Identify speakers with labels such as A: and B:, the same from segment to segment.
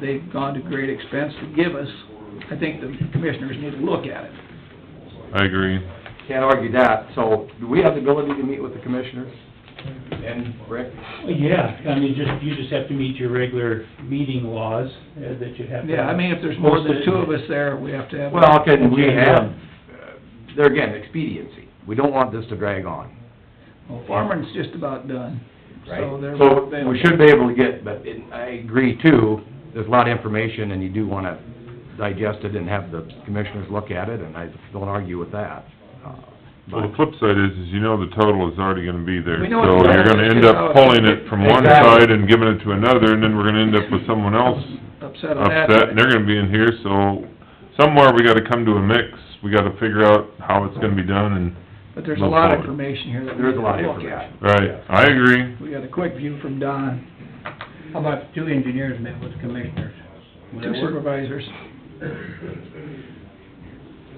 A: they've gone to great expense to give us, I think the commissioners need to look at it.
B: I agree.
C: Can't argue that, so do we have the ability to meet with the commissioners? And Rick?
D: Yeah, I mean, just, you just have to meet your regular meeting laws uh, that you have to...
A: Yeah, I mean, if there's more than two of us there, we have to have.
C: Well, can we have, uh, there again, expediency. We don't want this to drag on,
A: Well, Foreman's just about done,
C: right?
A: so they're.
C: So we should be able to get, but it- I agree too, there's a lot of information and you do want to digest it and have the commissioners look at it and I don't argue with that. Uh,
B: Well,
C: but-
B: the flip side is, is you know the total is already gonna be there,
A: We know it's
B: so you're gonna end
A: there.
B: up pulling it from one
C: Exactly.
B: side and giving it to another, and then we're gonna end up with someone else
A: Upset on that.
B: upset, and they're gonna be in here, so somewhere we gotta come to a mix, we gotta figure out how it's gonna be done, and,
A: But there's a lot of
B: Move forward.
A: information here that we need
C: There's
A: to
C: a
A: look at.
C: lot of information.
B: right, I agree.
A: We got a quick view from Don,
E: How about the two engineers met with commissioners? Would that
A: two
E: work?
A: supervisors.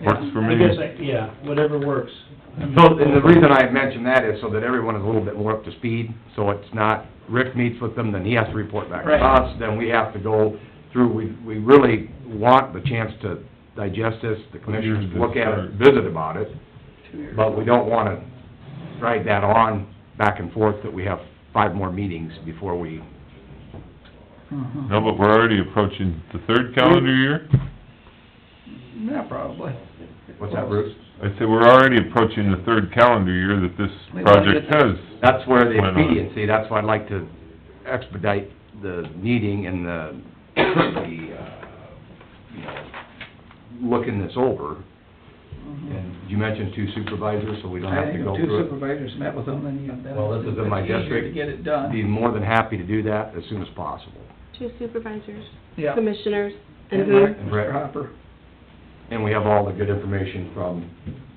B: Works for
D: I
B: me.
D: guess, I- yeah, whatever works.
C: So, and the reason I mention that is so that everyone is a little bit more up to speed, so it's not, Rick meets with them, then he has to report back to
A: Right.
C: us, then we have to go through, we, we really want the chance to digest this, the commissioners look at it, visit about it, but we don't wanna drag that on back and forth, that we have five more meetings before we,
A: Mhm.
B: No, but we're already approaching the third calendar year.
A: Yeah, probably.
C: what's that, Bruce?
B: I say we're already approaching the third calendar year that this
A: We wanna
B: project
A: get that-
B: has.
C: That's where the
B: Why not?
C: expediency, that's why I'd like to expedite the meeting and the, the, uh, you know, looking this over.
A: Mhm.
C: And you mentioned two supervisors, so we don't
A: I
C: have
A: think
C: to
A: if
C: go
A: two
C: through it.
A: supervisors met with them, then you have that.
C: Well, this is in my
A: It's easier
C: district.
A: to get it
C: Be
A: done,
C: more than happy to do that as soon as possible.
F: Two supervisors,
A: yeah.
F: commissioners, and
A: And
F: who?
A: Rick-
C: And Rick.
A: Mr. Hopper.
C: And we have all the good information from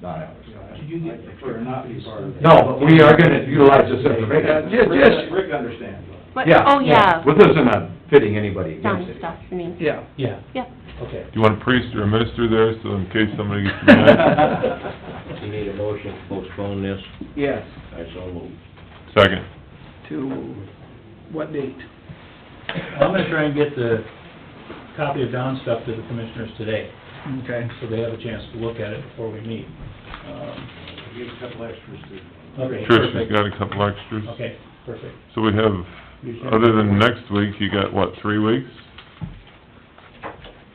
C: Don Alves.
E: Did you get, or not be part of it?
C: No, but we are gonna utilize this information.
A: Yeah,
E: Rick-
A: just-
E: Rick understands.
F: What- Oh, yeah,
C: Well, this isn't a fitting anybody against
F: Don
C: it.
F: stuff, I mean,
A: Yeah.
D: Yeah,
F: yeah.
D: okay.
B: Do you want a priest or a minister there, so in case somebody gets mad?
G: You need a motion to postpone this,
A: Yes,
G: I so move.
B: Second.
A: to what date?
D: I'm gonna try and get the copy of Don's stuff to the commissioners today,
A: Okay.
D: so they have a chance to look at it before we meet. Um,
E: Give a couple extras to.
D: Okay,
B: Trish has
D: perfect.
B: got a couple extras.
D: Okay, perfect.
B: So we have,
D: You should-
B: other than next week, you got, what, three weeks?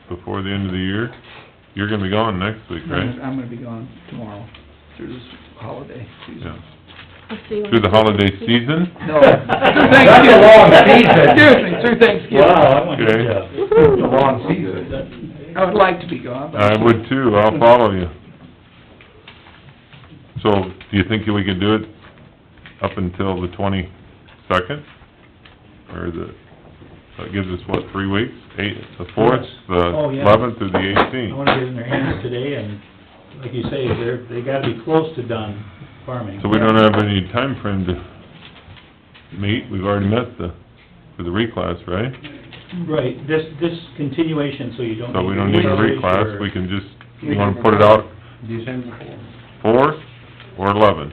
B: Before the end of the year? You're gonna be gone next week,
A: I'm
B: right?
A: gonna be gone tomorrow through this holiday
B: Yeah.
D: Mm-hmm.
A: season.
F: I'll see you
B: Through the
F: on-
B: holiday season?
A: No, through Thanksgiving.
C: That's a long season.
A: Excuse me, through Thanksgiving.
D: Wow, I want your
B: Okay.
D: job.
C: It's a long season.
A: I would like to be gone, but.
B: I would too, I'll follow you. So, do you think we can do it up until the twenty-second? Or the, that gives us, what, three weeks? Eight, the fourth,
D: Oh,
B: the
D: yeah.
B: eleventh, or the
D: I
B: eighteenth?
D: wanna get it in their hands today, and like you say, they're, they gotta be close to done farming.
B: So we don't have any time frame to meet, we've already met the, for the reclass, right?
D: Right, this, this continuation, so you don't need...
B: So we don't need a
D: to
B: reclass, we can just, you wanna put it out fourth or eleven?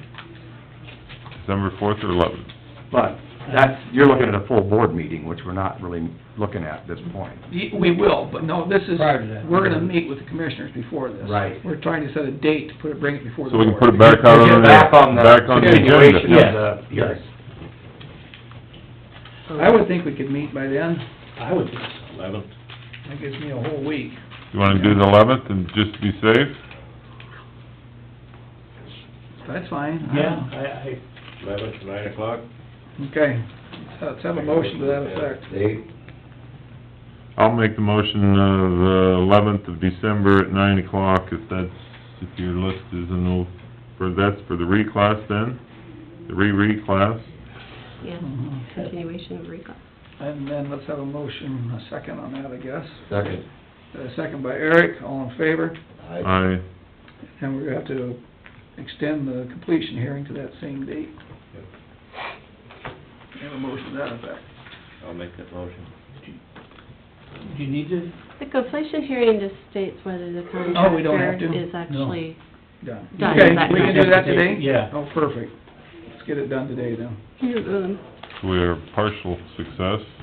B: December fourth or eleven?
C: But that's, you're looking at a full board meeting, which we're not really looking at at this point.
A: Y- We will, but no, this is,
E: Prior to that.
A: we're gonna meet with the commissioners before this.
C: Right.
A: We're trying to set a date to put it, bring it before the
B: So we
A: board.
B: can put it back out on the,
C: Back on the
B: back on the
C: continuation
B: agenda.
C: of the
D: Yes.
C: hearing.
A: I would think we could meet by then,
D: I would think so.
G: Eleventh,
A: that gives me a whole week.
B: You wanna do the eleventh and just be safe?
A: That's fine. I
D: Yeah,
A: don't-
D: I,
G: eleventh, nine o'clock?
A: Okay, So let's have a motion to that effect.
G: Dave?
B: I'll make the motion of the eleventh of December at nine o'clock, if that's, if your list is in, o- for, that's for the reclass then? The re-reclass?
F: Yeah, Mm-hmm. continuation of recall.
A: And then let's have a motion, a second on that, I guess.
G: Second.
A: A second by Eric, all in favor,
B: Aye.
A: and we're gonna have to extend the completion hearing to that same date. We Have a motion to that effect.
G: I'll make that motion.
D: I, do you need to,
F: The completion hearing just states whether the
A: Oh, we don't have
F: contractor
A: to?
F: is actually,
A: Done.
F: Done.
A: Okay,
F: That
A: we can do that today?
D: Yeah.
A: Oh, perfect. Let's get it done today then.
F: Hmm,
B: So we are partial success.